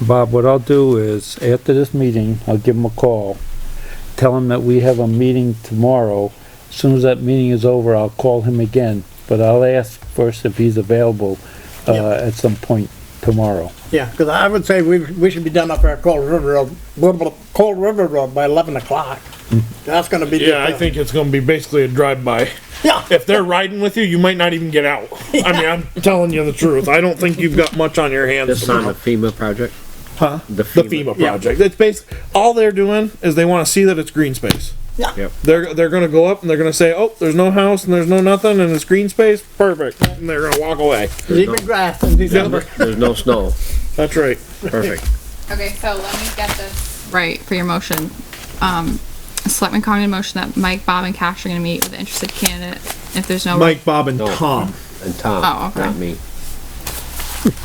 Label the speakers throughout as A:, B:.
A: Bob, what I'll do is, after this meeting, I'll give him a call, tell him that we have a meeting tomorrow. As Soon as that meeting is over, I'll call him again, but I'll ask first if he's available, uh,
B: Yeah.
A: at some point tomorrow.
B: Yeah, because I would say we, we should be done up at Cold River Road, blah, blah, Cold River Road by eleven o'clock. That's gonna be.
C: Yeah, I
B: different.
C: think it's gonna be basically a drive-by.
B: Yeah,
C: If they're riding with you, you might not even get out. I mean, I'm telling you the truth. I don't think you've got much on your hands.
D: This on
C: tomorrow.
D: the FEMA project?
C: Huh?
D: The
C: The
D: FEMA.
C: FEMA project. It's based, all they're doing is they wanna see that it's green space.
B: yeah,
D: Yep.
C: They're, they're gonna go up and they're gonna say, oh, there's no house and there's no nothing and it's green space, perfect. And they're gonna walk away.
B: deep in grass in December.
D: There's no snow.
C: That's right.
D: Perfect.
E: Okay, so let me get this right for your motion. Um, Selectman Congdon motion that Mike, Bob, and Cash are gonna meet with the interested candidate if there's no.
C: Mike, Bob and
D: No.
C: Tom.
D: And
E: Oh,
D: Tom,
E: okay.
D: not me.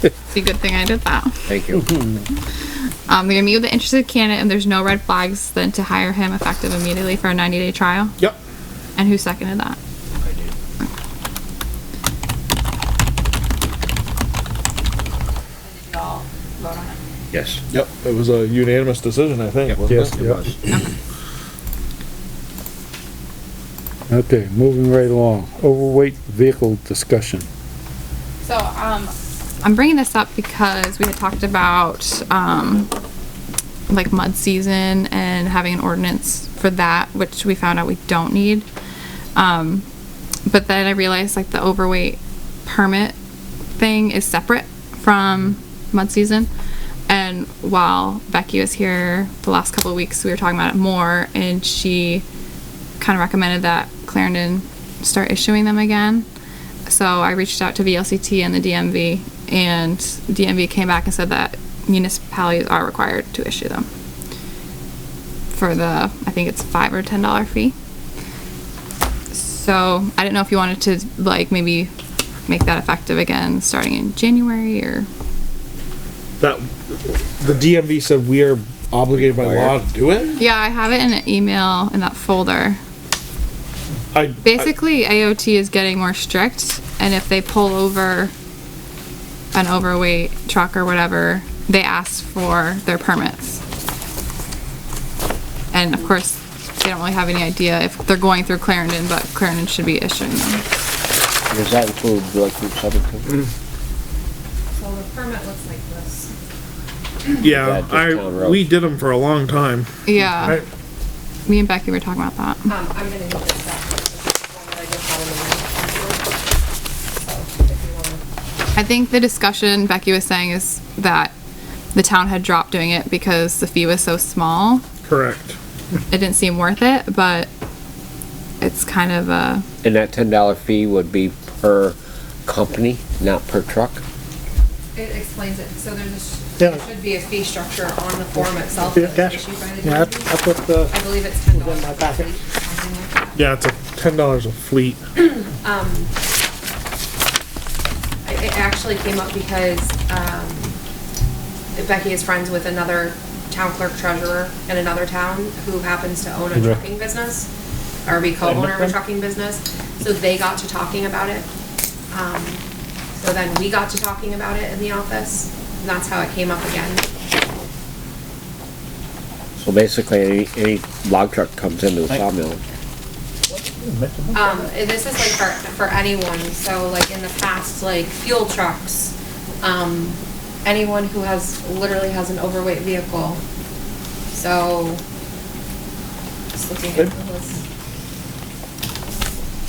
E: It's a good thing I did that.
D: Thank you.
C: Mm-hmm.
E: Um, they're gonna meet with the interested candidate and there's no red flags, then to hire him effective immediately for a ninety day trial.
C: Yep.
E: And who seconded that?
D: Yes.
C: Yep. It was a unanimous decision, I think, wasn't
A: Yes,
C: it?
A: yeah.
D: was.
A: Okay, moving right along. Overweight vehicle discussion.
E: So, um, I'm bringing this up because we had talked about, um, like mud season and having an ordinance for that, which we found out we don't need. Um, but then I realized like the overweight permit thing is separate from mud season. And while Becky was here the last couple of weeks, we were talking about it more and she kind of recommended that Clarendon start issuing them again. So I reached out to VLCT and the DMV, and DMV came back and said that municipalities are required to issue them for the, I think it's five or ten dollar fee. So I didn't know if you wanted to like maybe make that effective again, starting in January or
C: That, the DMV said we are obligated by law to do it?
E: yeah, I have it in an email in that folder.
C: I,
E: Basically, AOT is getting more strict, and if they pull over an overweight truck or whatever, they ask for their permits. And of course, they don't really have any idea if they're going through Clarendon, but Clarendon should be issuing them.
D: Does that include like Route 17?
F: So the permit looks like this.
C: yeah,
D: That just town
C: I,
D: road.
C: we did them for a long time.
E: Yeah,
C: Right.
E: me and Becky were talking about that.
F: Um, I'm gonna need this back.
E: I think the discussion Becky was saying is that the town had dropped doing it because the fee was so small.
C: Correct.
E: It didn't seem worth it, but it's kind of a
D: And that ten dollar fee would be per company, not per truck?
F: It explains it, so there's, a sh-
B: Yeah.
F: there should be a fee structure on the form itself.
B: Yeah,
F: that's
B: cash.
F: issued by the
B: Yeah,
F: DMV.
B: that's what the,
F: I believe it's ten dollars.
B: my packet.
C: Yeah, it's a ten dollars a fleet.
F: It it actually came up because, um, Becky is friends with another town clerk treasurer in another town who happens to own a trucking business, or be co-owner of a trucking business, so they got to talking about it. Um, So then we got to talking about it in the office, and that's how it came up again.
D: So basically, any, any log truck comes into the sawmill.
F: Um, and this is like for, for anyone, so like in the past, like fuel trucks, um, anyone who has, literally has an overweight vehicle. So, just looking at the list.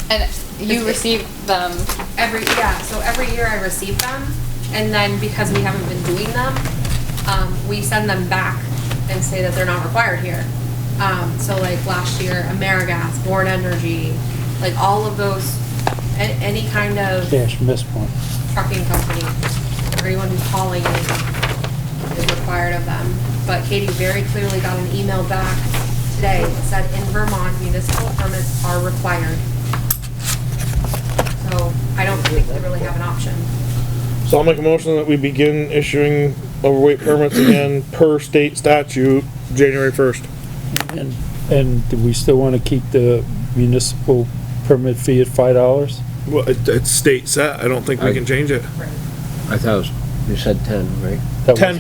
E: And
F: It's-
E: you receive them,
F: Every, yeah, so every year I receive them, and then because we haven't been doing them, um, we send them back and say that they're not required here. Um, so like last year, Amerigas, Born Energy, like all of those, a- any kind of
A: Cash missed one.
F: trucking company, everyone who's hauling is, is required of them. But Katie very clearly got an email back today that said, in Vermont, municipal permits are required. So I don't think they really have an option.
C: So I'll make a motion that we begin issuing overweight permits again per state statute, January first.
A: And, and do we still wanna keep the municipal permit fee at five dollars?
C: Well, it, it's state set. I don't think we
D: I-
C: can change it.
D: I thought it was, you said ten, right?
C: Ten